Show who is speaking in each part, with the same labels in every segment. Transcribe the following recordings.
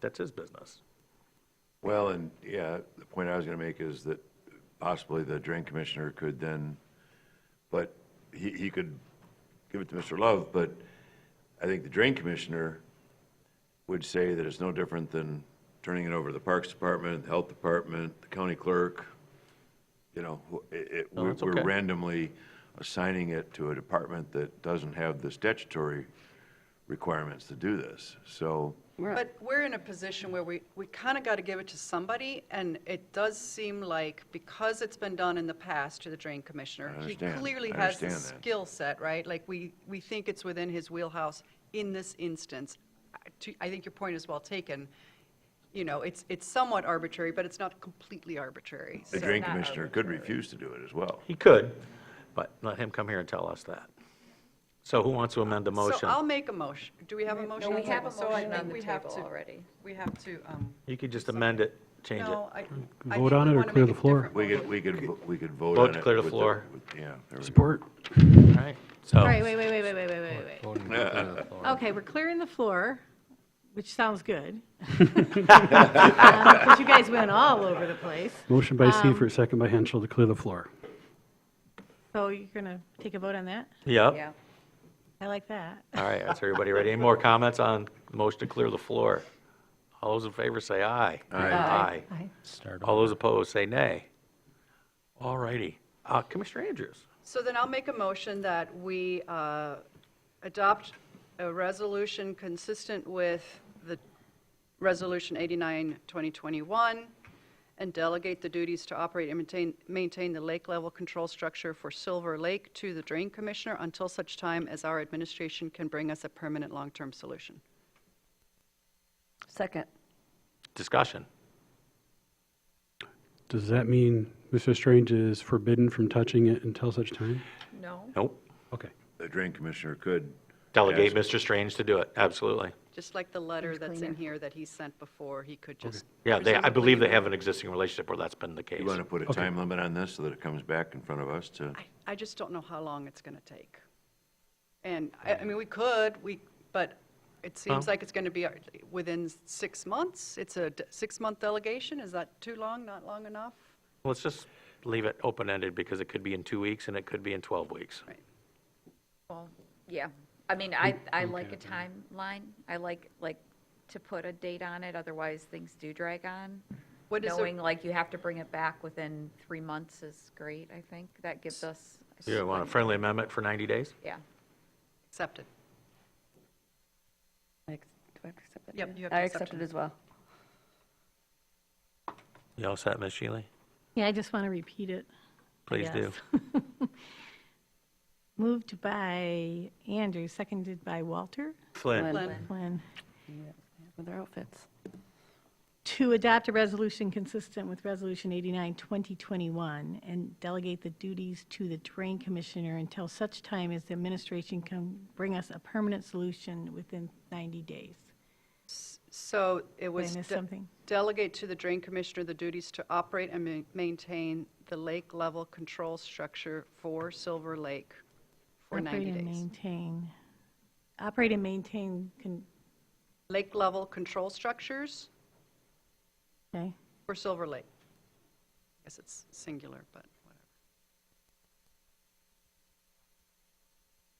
Speaker 1: That's his business.
Speaker 2: Well, and yeah, the point I was going to make is that possibly the drain commissioner could then, but he, he could give it to Mr. Love, but I think the drain commissioner would say that it's no different than turning it over to the Parks Department, the Health Department, the county clerk, you know, who- it, it,
Speaker 1: No,
Speaker 2: we're
Speaker 1: that's
Speaker 2: we're
Speaker 1: okay.
Speaker 2: randomly assigning it to a department that doesn't have the statutory requirements to do this, so.
Speaker 3: But we're in a position where we, we kind of got to give it to somebody, and it does seem like, because it's been done in the past to the drain commissioner,
Speaker 2: I
Speaker 3: he
Speaker 2: understand.
Speaker 3: clearly
Speaker 2: I
Speaker 3: has the
Speaker 2: understand that.
Speaker 3: skill set, right? Like, we, we think it's within his wheelhouse in this instance. I- to- I think your point is well taken. You know, it's, it's somewhat arbitrary, but it's not completely arbitrary.
Speaker 2: The
Speaker 3: so-
Speaker 2: drain commissioner could refuse to do it as well.
Speaker 1: He could, but let him come here and tell us that. So who wants to amend the
Speaker 3: So
Speaker 1: motion?
Speaker 3: I'll make a motion. Do we have a motion? on
Speaker 4: we
Speaker 3: the
Speaker 4: have a
Speaker 3: table? So I
Speaker 4: motion
Speaker 3: think
Speaker 4: on the
Speaker 3: we have
Speaker 4: table
Speaker 3: to-
Speaker 4: already.
Speaker 3: We have to, um,
Speaker 1: You could just amend it, change it.
Speaker 3: no, I. I
Speaker 5: Vote
Speaker 3: think
Speaker 5: on
Speaker 3: we
Speaker 5: it or
Speaker 3: wanna
Speaker 5: clear
Speaker 3: make
Speaker 5: the
Speaker 3: a
Speaker 5: floor?
Speaker 3: different
Speaker 2: We
Speaker 3: motion.
Speaker 2: could, we could, vo- we could vote
Speaker 1: Vote
Speaker 2: on it.
Speaker 1: to clear the
Speaker 2: with
Speaker 1: floor.
Speaker 2: with- Yeah. there we go.
Speaker 5: Support.
Speaker 1: All right, so,
Speaker 6: All right, wait, wait, wait, wait, wait, wait, wait, wait.
Speaker 7: Voting to clear the floor.
Speaker 6: Okay, we're clearing the floor, which sounds good. Um, But you guys went all over the place.
Speaker 5: Motion by Seifert, second by Henschel to clear the floor.
Speaker 6: So you're going to take a vote on that?
Speaker 1: yep.
Speaker 4: Yeah.
Speaker 6: I like that.
Speaker 1: All right, that's everybody ready. Any more comments on the motion to clear the floor? All those in favor say aye. Aye. Aye.
Speaker 7: Start
Speaker 1: All those opposed say nay. All righty. Uh, Commissioner Andrews?
Speaker 3: So then I'll make a motion that we uh, adopt a resolution consistent with the Resolution 89, 2021, and delegate the duties to operate and maintain, maintain the lake level control structure for Silver Lake to the Drain Commissioner until such time as our administration can bring us a permanent long-term solution.
Speaker 4: Second.
Speaker 1: Discussion.
Speaker 5: Does that mean Mr. Strange is forbidden from touching it until such time?
Speaker 4: No.
Speaker 1: Nope.
Speaker 5: Okay.
Speaker 2: The drain commissioner could.
Speaker 1: Delegate
Speaker 2: ask-
Speaker 1: Mr. Strange to do it, absolutely.
Speaker 3: Just like the letter that's in here that he sent before, he could just.
Speaker 1: Yeah, they, I
Speaker 3: presumably
Speaker 1: believe they
Speaker 3: do-
Speaker 1: have an existing relationship where that's been the case.
Speaker 2: You want to put a time limit on this so that it comes back in front of us to,
Speaker 3: I- I just don't know how long it's going to take. And, I I mean, we could, we, but it seems like it's going to be uh, within six months. It's a d- six-month delegation. Is that too long, not long enough?
Speaker 1: Let's just leave it open-ended because it could be in two weeks and it could be in 12 weeks.
Speaker 3: Right.
Speaker 4: Well, yeah. I mean, I, I like a timeline. I like, like, to put a date on it, otherwise things do drag on.
Speaker 3: What is a-
Speaker 4: Knowing like you have to bring it back within three months is great, I think. That gives us.
Speaker 1: You want a friendly amendment for 90 days?
Speaker 4: Yeah.
Speaker 3: Accepted.
Speaker 8: I ex- Do I have to accept that?
Speaker 3: Yep,
Speaker 8: too?
Speaker 3: you have to
Speaker 8: I
Speaker 3: accept
Speaker 8: accept
Speaker 3: it.
Speaker 8: it as well.
Speaker 1: You all set, Ms. Shealy?
Speaker 6: Yeah, I just want to repeat it.
Speaker 1: Please do.
Speaker 6: Yes. Moved by Andrew, seconded by Walter
Speaker 1: Flynn,
Speaker 8: Flynn.
Speaker 3: Lynn,
Speaker 6: Flynn,
Speaker 8: With their outfits.
Speaker 6: to adopt a resolution consistent with Resolution 89, 2021, and delegate the duties to the Drain Commissioner until such time as the administration can bring us a permanent solution within 90 days.
Speaker 3: So it
Speaker 6: Did
Speaker 3: was.
Speaker 6: I miss
Speaker 3: de-
Speaker 6: something?
Speaker 3: Delegate to the Drain Commissioner the duties to operate and ma- maintain the lake level control structure for Silver Lake for 90
Speaker 6: Operate and
Speaker 3: days.
Speaker 6: maintain, operate and maintain, con-
Speaker 3: Lake level control structures
Speaker 6: okay,
Speaker 3: for Silver Lake. I guess it's singular, but whatever.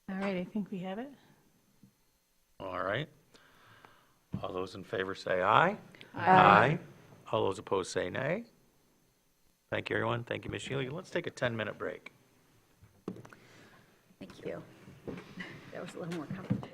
Speaker 6: all right, I think we have it.
Speaker 1: all right. All those in favor say aye. Aye. All those opposed say nay. Thank you, everyone. Thank you, Ms. Shealy. Let's take a 10-minute break.
Speaker 4: Thank you.
Speaker 8: That was a little more complicated.